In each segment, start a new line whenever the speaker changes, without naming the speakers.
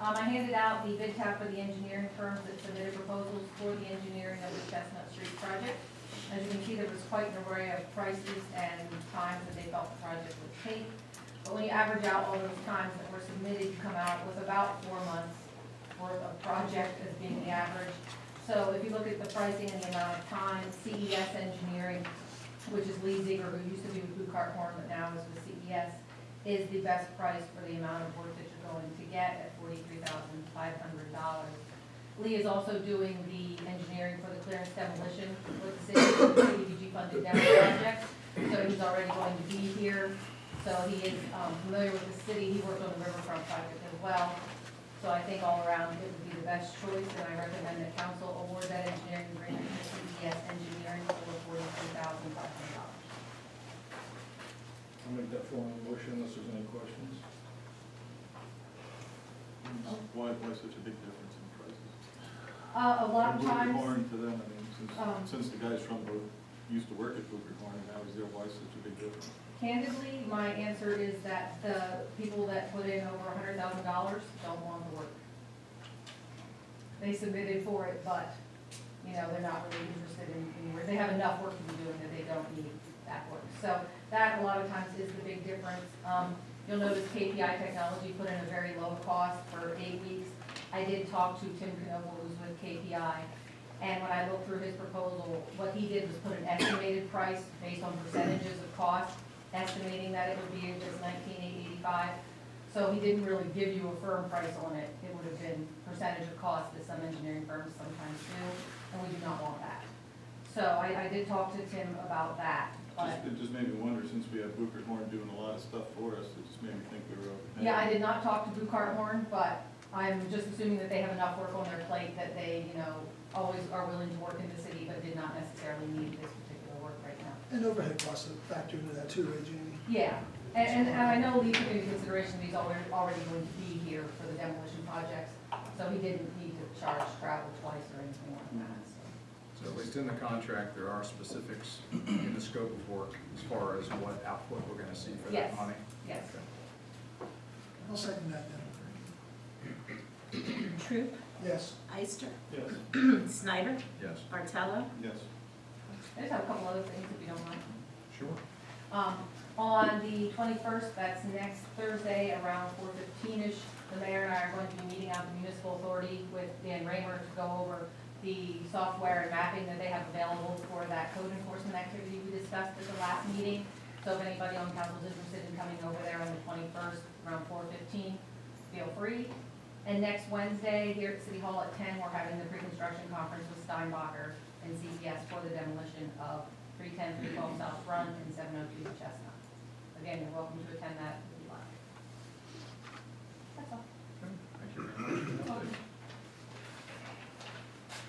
Um, I handed out the bid tab for the engineering firms that submitted proposals for the engineering of the Chestnut Street project. As you can see, there was quite an array of prices and times that they thought the project would take. But when you average out all those times that were submitted, you come out with about four months worth of project as being the average. So if you look at the pricing and the amount of time, CES Engineering, which is Lee Ziegler, who used to be with Blue Cart Horn, but now is with E CES, is the best price for the amount of work that you're going to get at forty-three thousand five hundred dollars. Lee is also doing the engineering for the clearance demolition with the city, the CDBG funded demo project. So he's already going to be here, so he is um, familiar with the city, he worked on the riverfront project as well. So I think all around it would be the best choice, and I recommend that council award that engineering agreement to CES Engineering for forty-three thousand five hundred dollars.
I'll make that formal motion unless there's any questions.
Oh.
Why, why such a big difference in prices?
Uh, a lot of
Blue
times.
Horn to them, I mean,
Um.
since, since the guys from, Blue- used to work at Booker Horn, and now he's there, why such a big difference?
Candidly, my answer is that the people that put in over a hundred thousand dollars don't want the work. They submitted for it, but, you know, they're not really interested in, in work. They have enough work to be doing that they don't need that work. So that a lot of times is the big difference. Um, you'll notice KPI Technology put in a very low cost for eight weeks. I did talk to Tim Knoble, who's with KPI, and when I looked through his proposal, what he did was put an estimated price based on percentages of cost, estimating that it would be just nineteen eighty-five. So he didn't really give you a firm price on it. It would have been percentage of cost that some engineering firms sometimes do, and we do not want that. So I, I did talk to Tim about that, but,
Just, it just made me wonder, since we have Booker Horn doing a lot of stuff for us, it just made me think we were overpaying.
yeah, I did not talk to Blue Cart Horn, but I'm just assuming that they have enough work on their plate that they, you know, always are willing to work in the city, but did not necessarily need this particular work right now.
And overhead costs are factored into that too, right, Jamie?
Yeah, and, and, and I know Lee took into consideration that he's already, already going to be here for the demolition projects, so he didn't need to charge travel twice or anything like that, so.
So at least in the contract, there are specifics in the scope of work as far as what output we're gonna see for
Yes.
that money?
Yes.
Okay.
I'll second that then.
Troop,
Yes,
Eister,
Yes.
Snyder,
Yes,
Bartello,
Yes,
I just have a couple other things if you don't mind.
sure.
Um, on the twenty-first, that's next Thursday, around four fifteen-ish, the mayor and I are going to be meeting out at the municipal authority with Dan Raymer to go over the software and mapping that they have available for that code enforcement activity we discussed at the last meeting. So if anybody on council is interested in coming over there on the twenty-first, around four fifteen, feel free. And next Wednesday, here at City Hall at ten, we're having the pre-construction conference with Steinbacher and CPS for the demolition of 310, 312 South Front and seven oh two Chestnut. Again, you're welcome to attend that if you like. That's all.
Thank you very much for the update.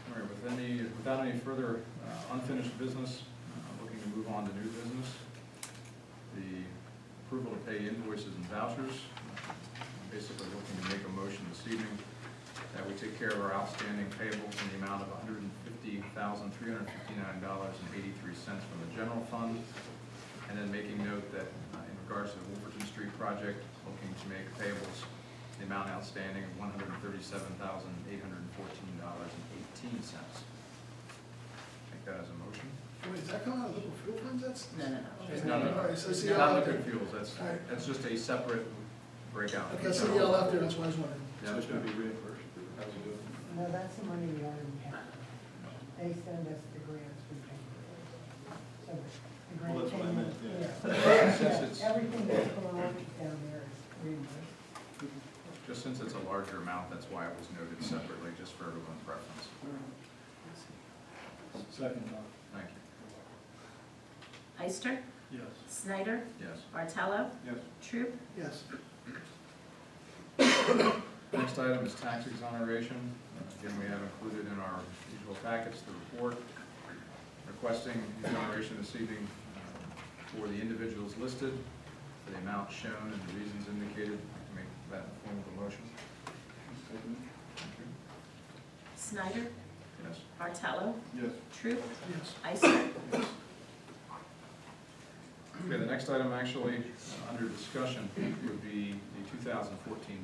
All right, with any, without any further uh, unfinished business, uh, looking to move on to new business. The approval to pay invoices and vouchers. I'm Basically looking to make a motion this evening that we take care of our outstanding payables in the amount of hundred and fifty thousand, three hundred and fifty-nine dollars and eighty-three cents from the general fund. And then making note that uh, in regards to the Wolverton Street project, looking to make payables the amount outstanding of one hundred and thirty-seven thousand, eight hundred and fourteen dollars and eighteen cents. Take that as a motion.
wait, is that coming out of liquid fuel funds, that's?
No, no, no.
Okay.
No, no.
All right, so see y'all
Not
out
liquid
there.
fuels, that's,
All right.
that's just a separate breakout.
Okay, so y'all out there, that's why I was wondering.
so
Yeah,
it's gonna be reimbursed, or how's it doing?
No, that's the money we already have. They send us the grants we pay for. So the grant
Well, that's what I meant, yeah.
payment-
Since
yeah.
it's-
Yeah, Everything that's going on down there is reimbursed.
just since it's a larger amount, that's why it was noted separately, just for everyone's reference.
Second, Tom.
Thank you.
Eister,
Yes.
Snyder,
Yes.
Bartello,
Yes,
Troop,
Yes,
Next item is tax exoneration. Again, we have included in our usual packets the report requesting exoneration this evening uh, for the individuals listed, for the amount shown and the reasons indicated. Make that in the form of a motion.
Second?
Snyder,
Yes.
Bartello,
yes.
Troop,
yes.
Eister,
Okay, the next item actually uh, under discussion would be the 2014